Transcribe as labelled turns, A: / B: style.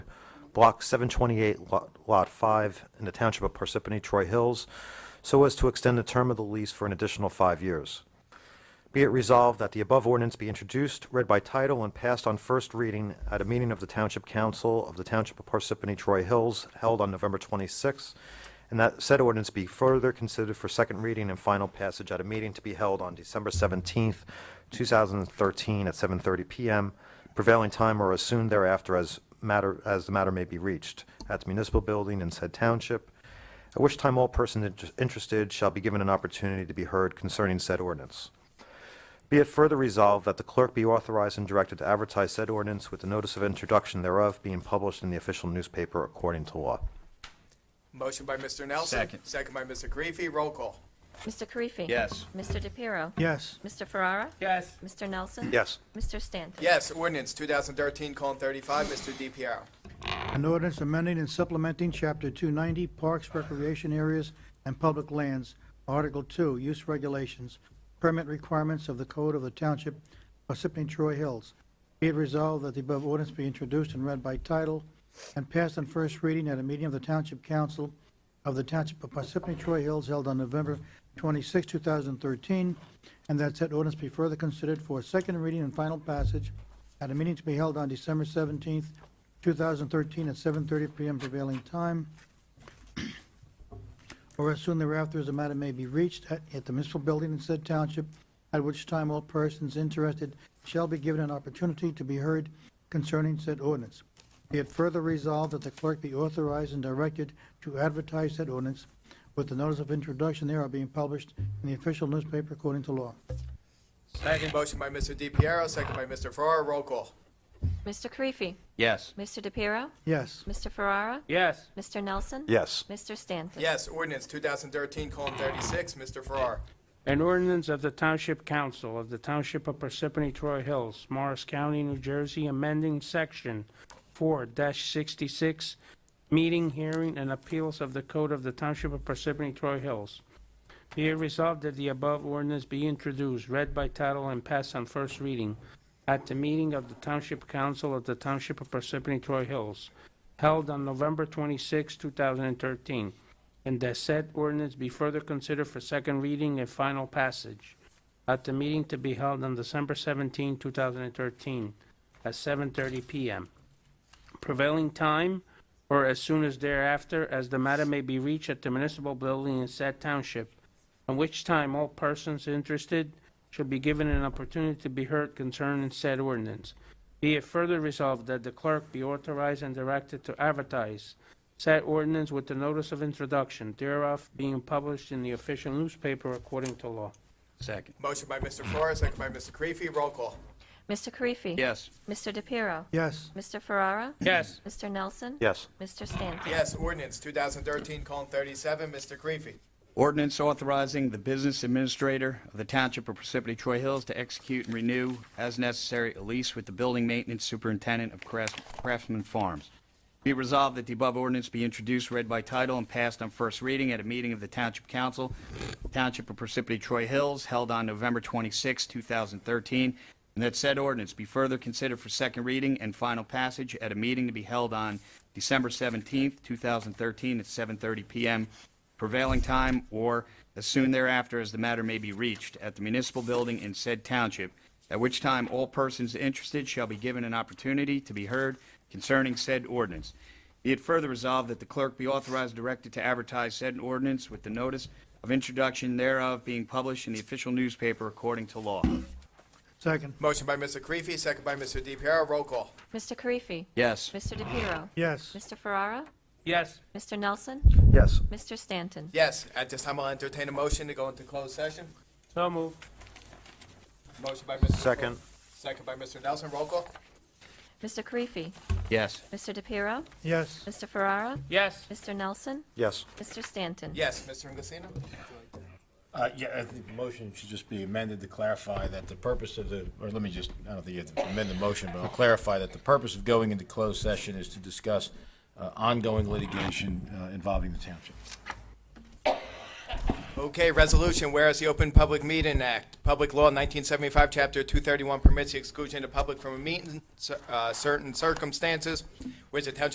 A: Block 728, Lot- Lot 5, in the Township of Parsippany Troy Hills, so as to extend the term of the lease for an additional five years. Be it resolved that the above ordinance be introduced, read by title, and passed on first reading at a meeting of the Township Council of the Township of Parsippany Troy Hills held on November 26, and that said ordinance be further considered for second reading and final passage at a meeting to be held on December 17, 2013, at 7:30 PM prevailing time or as soon thereafter as matter, as the matter may be reached at the municipal building in said township, at which time all persons inter- interested shall be given an opportunity to be heard concerning said ordinance. Be it further resolved that the clerk be authorized and directed to advertise said ordinance with the notice of introduction thereof being published in the official newspaper according to law.
B: Motion by Mr. Nelson.
C: Second.
B: by Mr. Grefi. Roll call.
D: Mr. Karifi.
C: Yes.
D: Mr. DePiero.
E: yes,
D: Mr. Ferrara.
C: Yes.
D: Mr. Nelson.
A: Yes.
D: Mr. Stanton.
B: Yes, ordinance 2013 colon 35, Mr. DiPiero.
E: an ordinance amending and supplementing Chapter 290 Parks, Recreation Areas, and Public Lands, Article 2, Use Regulations, Permit Requirements of the Code of the Township of Parsippany Troy Hills. Be it resolved that the above ordinance be introduced and read by title and passed on first reading at a meeting of the Township Council of the Township of Parsippany Troy Hills held on November 26, 2013, and that said ordinance be further considered for second reading and final passage at a meeting to be held on December 17, 2013, at 7:30 PM prevailing time, or as soon thereafter as the matter may be reached at at the municipal building in said township, at which time all persons interested shall be given an opportunity to be heard concerning said ordinance. Be it further resolved that the clerk be authorized and directed to advertise said ordinance with the notice of introduction thereof being published in the official newspaper according to law.
C: Second.
B: Motion by Mr. DiPiero, second by Mr. Farrar. Roll call.
D: Mr. Karifi.
C: Yes.
D: Mr. DePiero.
E: Yes,
D: Mr. Ferrara.
C: Yes.
D: Mr. Nelson.
A: Yes.
D: Mr. Stanton.
B: Yes, ordinance 2013 colon 36, Mr. Farrar.
F: An ordinance of the Township Council of the Township of Parsippany Troy Hills, Morris County, New Jersey, amending Section 4-66, meeting, hearing, and appeals of the Code of the Township of Parsippany Troy Hills. Be it resolved that the above ordinance be introduced, read by title, and passed on first reading at the meeting of the Township Council of the Township of Parsippany Troy Hills, held on November 26, 2013, and that said ordinance be further considered for second reading and final passage at the meeting to be held on December 17, 2013, at 7:30 PM. Prevailing time, or as soon as thereafter, as the matter may be reached at the municipal building in said township, at which time all persons interested shall be given an opportunity to be heard concerning said ordinance. Be it further resolved that the clerk be authorized and directed to advertise said ordinance with the notice of introduction thereof being published in the official newspaper according to law.
C: Second.
B: Motion by Mr. Farrar, second by Mr. Grefi. Roll call.
D: Mr. Karifi.
C: Yes.
D: Mr. DePiero.
E: yes,
D: Mr. Ferrara.
F: Yes.
D: Mr. Nelson.
A: Yes.
D: Mr. Stanton.
B: Yes, ordinance 2013 colon 37, Mr. Grefi.
C: Ordinance authorizing the business administrator of the Township of Parsippany Troy Hills to execute and renew as necessary a lease with the building maintenance superintendent of Crafts- Craftsman Farms. Be it resolved that the above ordinance be introduced, read by title, and passed on first reading at a meeting of the Township Council, Township of Parsippany Troy Hills, held on November 26, 2013, and that said ordinance be further considered for second reading and final passage at a meeting to be held on December 17, 2013, at 7:30 PM prevailing time or as soon thereafter as the matter may be reached at the municipal building in said township, at which time all persons interested shall be given an opportunity to be heard concerning said ordinance. Be it further resolved that the clerk be authorized and directed to advertise said ordinance with the notice of introduction thereof being published in the official newspaper according to law.
E: second,
B: Motion by Mr. Grefi, second by Mr. DiPiero. Roll call.
D: Mr. Karifi.
C: Yes.
D: Mr. DePiero.
E: yes,
D: Mr. Ferrara.
F: Yes.
D: Mr. Nelson.
A: Yes.
D: Mr. Stanton.
B: Yes, at this time, I'll entertain a motion to go into closed session.
F: So moved.
B: Motion by Mr.
A: Second.
B: Second by Mr. Nelson. Roll call.
D: Mr. Karifi.
C: Yes.
D: Mr. DePiero.
E: yes.
D: Mr. Ferrara.
F: Yes.
D: Mr. Nelson.
A: Yes.
D: Mr. Stanton.
B: Yes, Mr. Inglesino?
G: Uh, yeah, I think the motion should just be amended to clarify that the purpose of the, or let me just, I don't think you have to amend the motion, but I'll clarify that the purpose of going into closed session is to discuss uh, ongoing litigation uh, involving the township.
B: Okay, resolution, whereas the Open Public Meeting Act, Public Law 1975, Chapter 231 permits the exclusion of public from a meeting, in cer- uh, certain circumstances, whereas the township